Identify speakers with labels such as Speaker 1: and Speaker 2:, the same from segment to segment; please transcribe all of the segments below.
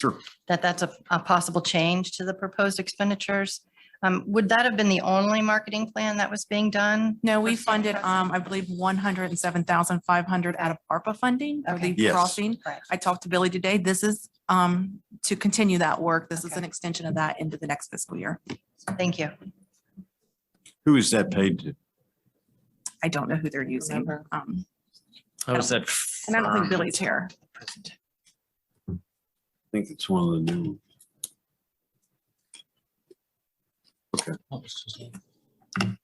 Speaker 1: Sure.
Speaker 2: that that's a, a possible change to the proposed expenditures. Um, would that have been the only marketing plan that was being done?
Speaker 3: No, we
Speaker 2: For Santa
Speaker 3: funded,
Speaker 2: Cruz?
Speaker 3: um, I believe one hundred and seven thousand five hundred out of ARPA funding for
Speaker 2: Okay.
Speaker 3: the
Speaker 1: Yes.
Speaker 3: crossing.
Speaker 2: Right.
Speaker 3: I talked to Billy today. This is, um, to continue that work. This is
Speaker 2: Okay.
Speaker 3: an extension of that into the next fiscal year.
Speaker 2: Thank you.
Speaker 1: Who is that paid to?
Speaker 3: I don't know who they're using.
Speaker 2: Remember.
Speaker 3: Um,
Speaker 4: How was that?
Speaker 3: and I don't think
Speaker 4: firm?
Speaker 3: Billy's here.
Speaker 1: I think it's one of the new.
Speaker 4: What was his name?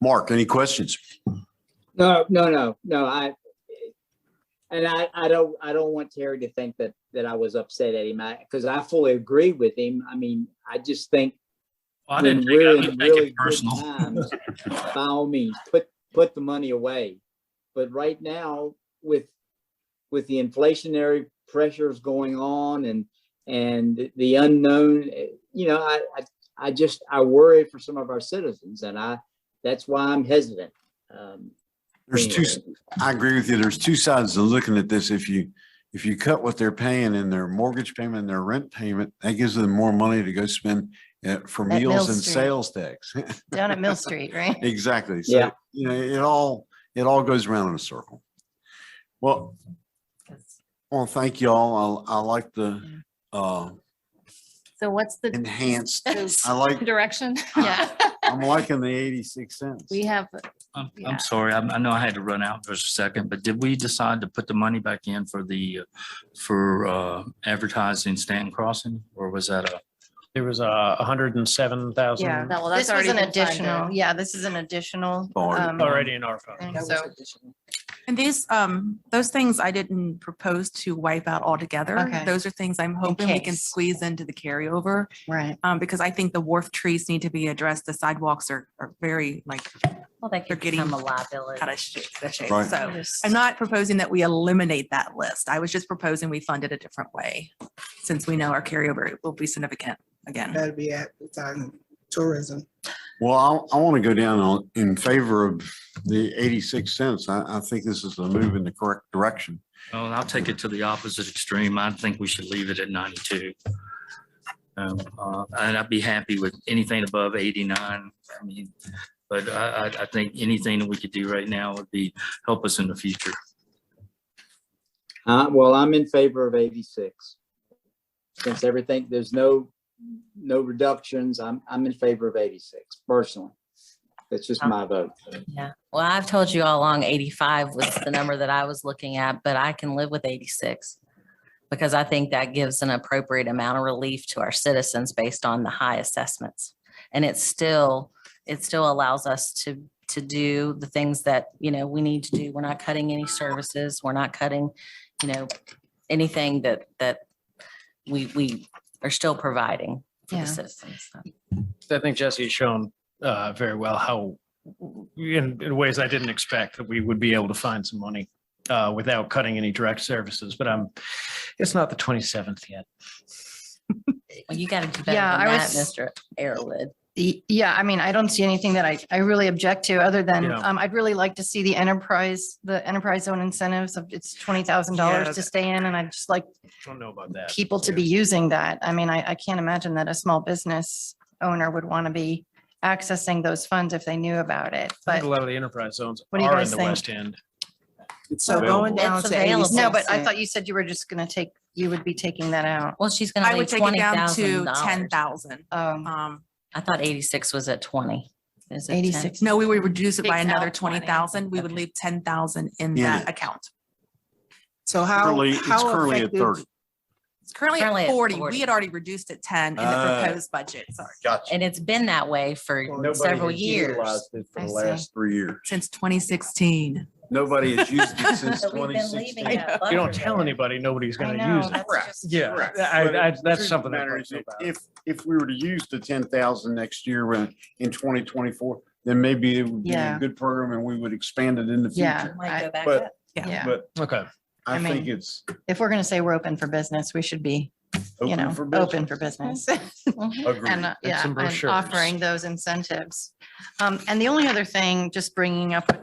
Speaker 1: Mark, any questions?
Speaker 5: No, no, no, no, I, and I, I don't, I don't want Terry to think that, that I was upset at him, I, because I fully agree with him. I mean, I just think.
Speaker 4: Well, I
Speaker 5: when
Speaker 4: didn't take it-
Speaker 5: we're
Speaker 4: I
Speaker 5: in
Speaker 4: didn't take
Speaker 5: really
Speaker 4: it
Speaker 5: good
Speaker 4: personal.
Speaker 5: times, By all means, put, put the money away. But right now, with, with the inflationary pressures going on and, and the unknown, eh, you know, I, I, I just, I worry for some of our citizens and I, that's why I'm hesitant. Um,
Speaker 1: There's two,
Speaker 5: anyway.
Speaker 1: I agree with you. There's two sides to looking at this. If you, if you cut what they're paying in their mortgage payment and their rent payment, that gives them more money to go spend uh, for
Speaker 2: At Mill
Speaker 1: meals and
Speaker 2: Street.
Speaker 1: sales tax.
Speaker 2: Down at Mill Street, right?
Speaker 1: Exactly. So,
Speaker 5: Yeah.
Speaker 1: you know, it all, it all goes around in a circle. Well, well, thank y'all. I, I like the, uh,
Speaker 6: So what's the
Speaker 1: enhanced. I
Speaker 6: the
Speaker 1: like,
Speaker 6: direction?
Speaker 2: Yeah.
Speaker 1: I'm liking the 86 cents.
Speaker 6: We have,
Speaker 4: I'm,
Speaker 6: Yeah.
Speaker 4: I'm sorry. I, I know I had to run out for a second, but did we decide to put the money back in for the, uh, for, uh, advertising Stanton Crossing? Or was that a,
Speaker 7: There was a hundred and seven
Speaker 2: Yeah.
Speaker 7: thousand
Speaker 6: no, well,
Speaker 2: This
Speaker 6: that's
Speaker 2: was
Speaker 6: already.
Speaker 2: an
Speaker 6: been funded.
Speaker 2: additional, yeah, this is an additional.
Speaker 1: Already.
Speaker 2: um,
Speaker 7: already in our phone.
Speaker 2: thing, So,
Speaker 3: And these, um, those things I didn't propose to wipe out altogether.
Speaker 2: Okay.
Speaker 3: Those are things I'm hoping we can
Speaker 2: case.
Speaker 3: squeeze into the carryover.
Speaker 2: right.
Speaker 3: Um, because I think the wharf trees need to be addressed. The sidewalks are, are very like
Speaker 6: Well, that
Speaker 3: They're
Speaker 6: could
Speaker 3: getting
Speaker 6: become a liability.
Speaker 3: out of shape. out of shape.
Speaker 1: Right.
Speaker 3: So
Speaker 2: Yes.
Speaker 3: Oh. I'm not proposing that we eliminate that list. I was just proposing we fund it a different way since we know our carryover will be significant again.
Speaker 8: That'd be advertising, tourism.
Speaker 1: Well, I, I want to go down on, in favor of the 86 cents. I, I think this is a move in the correct direction.
Speaker 4: well, I'll take it to the opposite extreme. I think we should leave it at ninety-two. Um, uh, and I'd be happy with anything above eighty-nine. I mean, but I, I, I think anything that we could do right now would be, help us in the future.
Speaker 5: Uh, well, I'm in favor of eighty-six. Since everything, there's no, no reductions, I'm, I'm in favor of eighty-six personally. That's just my vote.
Speaker 6: Yeah, well, I've told you all along, eighty-five was the number that I was looking at, but I can live with eighty-six. Because I think that gives an appropriate amount of relief to our citizens based on the high assessments. And it's still, it still allows us to, to do the things that, you know, we need to do. We're not cutting any services, we're not cutting, you know, anything that, that we, we are still providing for
Speaker 2: Yeah.
Speaker 6: the citizens. so.
Speaker 7: I think Jesse has shown uh, very well how, in, in ways I didn't expect, that we would be able to find some money uh, without cutting any direct services, but I'm, it's not the twenty-seventh yet.
Speaker 6: Well, You gotta do better than
Speaker 2: Yeah, I
Speaker 6: that,
Speaker 2: was-
Speaker 6: Mr. Arrowood.
Speaker 2: Y- Yeah, I mean, I don't see anything that I, I really object to, other than,
Speaker 7: Yeah.
Speaker 2: um, I'd really like to see the enterprise, the enterprise zone incentives of, it's twenty thousand dollars to
Speaker 7: Yeah.
Speaker 2: stay in, and I'd just like
Speaker 7: Don't know about that.
Speaker 2: people to be using that. I mean, I, I can't imagine that a small business owner would want to be accessing those funds if they knew about it,
Speaker 7: I think
Speaker 2: but.
Speaker 7: A lot of the enterprise zones
Speaker 2: What do you
Speaker 7: are
Speaker 2: guys
Speaker 7: in the
Speaker 2: think?
Speaker 7: west end.
Speaker 8: So going
Speaker 6: It's
Speaker 8: down to
Speaker 6: available.
Speaker 8: eighty-six.
Speaker 2: No, but I thought you said you were just going to take, you would be taking that out.
Speaker 6: Well, she's gonna
Speaker 3: I would
Speaker 6: leave
Speaker 3: take it
Speaker 6: twenty
Speaker 3: down
Speaker 6: thousand
Speaker 3: to
Speaker 6: dollars.
Speaker 3: ten thousand.
Speaker 2: Um,
Speaker 3: Um,
Speaker 6: I thought eighty-six was at twenty. Is it 10?
Speaker 2: 86.
Speaker 3: no, we would reduce it by
Speaker 6: Takes out
Speaker 3: another
Speaker 6: 20.
Speaker 3: twenty thousand. We would leave ten thousand in
Speaker 1: In
Speaker 3: that
Speaker 1: it.
Speaker 3: account.
Speaker 8: So how,
Speaker 1: Currently, it's
Speaker 8: how
Speaker 1: currently at
Speaker 8: effective?
Speaker 1: 30.
Speaker 3: It's currently
Speaker 6: Currently
Speaker 3: at
Speaker 6: at
Speaker 3: forty.
Speaker 6: 40.
Speaker 3: We had already reduced it ten in the
Speaker 1: Ah.
Speaker 3: proposed budget, sorry,
Speaker 1: Gotcha.
Speaker 6: And it's been that way for several years.
Speaker 1: For
Speaker 2: I
Speaker 1: the
Speaker 2: see.
Speaker 1: last three years.
Speaker 3: since twenty sixteen.
Speaker 1: Nobody has used it since
Speaker 6: But we've been
Speaker 1: 2016.
Speaker 6: leaving that
Speaker 7: You
Speaker 6: buffer
Speaker 7: don't tell
Speaker 6: there.
Speaker 7: anybody, nobody's
Speaker 2: I
Speaker 7: gonna
Speaker 2: know,
Speaker 7: use it.
Speaker 2: that's
Speaker 8: Correct.
Speaker 2: just-
Speaker 7: Yeah,
Speaker 8: Correct.
Speaker 7: I, I, that's
Speaker 1: Truth
Speaker 7: something.
Speaker 1: of the
Speaker 7: that
Speaker 1: matter
Speaker 7: bugs
Speaker 1: is
Speaker 7: me
Speaker 1: if-
Speaker 7: about it.
Speaker 1: If, if we were to use the ten thousand next year when- in twenty twenty-four, then maybe it would be a
Speaker 2: Yeah.
Speaker 1: good program and we would expand it in the
Speaker 2: Yeah,
Speaker 1: future.
Speaker 6: Might go back
Speaker 1: But-
Speaker 6: up.
Speaker 3: Yeah.
Speaker 2: yeah.
Speaker 1: But
Speaker 7: Okay.
Speaker 1: I
Speaker 2: I
Speaker 1: think
Speaker 2: mean,
Speaker 1: it's
Speaker 2: If we're going to say we're open for business, we should be, you
Speaker 1: open
Speaker 2: know,
Speaker 1: for business.
Speaker 2: open for business.
Speaker 6: Mhm.
Speaker 1: Agreed.
Speaker 2: And, uh,
Speaker 7: And
Speaker 2: yeah,
Speaker 7: some
Speaker 2: and
Speaker 7: brochures.
Speaker 2: offering those incentives. Um, And the only other thing, just bringing up with